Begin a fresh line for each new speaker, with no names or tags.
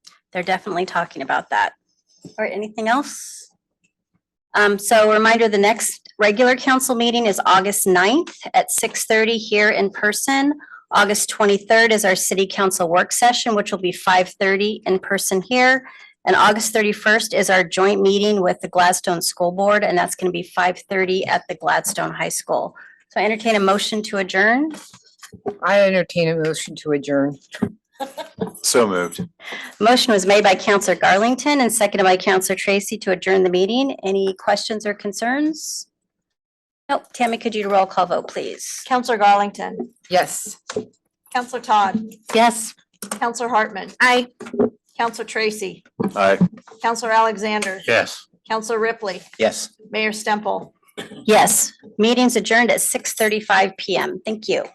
they're definitely talking about that. Or anything else? Um, so a reminder, the next regular council meeting is August 9th at six thirty here in person. August twenty-third is our city council work session, which will be five thirty in person here. And August thirty-first is our joint meeting with the Gladstone School Board, and that's going to be five thirty at the Gladstone High School. So I entertain a motion to adjourn.
I entertain a motion to adjourn.
So moved.
Motion was made by Counselor Garlington and seconded by Counselor Tracy to adjourn the meeting. Any questions or concerns? Nope. Tammy, could you roll call vote, please?
Counselor Garlington,
Yes.
Counselor Todd,
Yes.
Counselor Hartman,
Aye.
Counselor Tracy,
Aye.
Counselor Alexander,
Yes.
Counselor Ripley,
Yes.
Mayor Stemple.
Yes. Meeting's adjourned at six thirty-five PM. Thank you.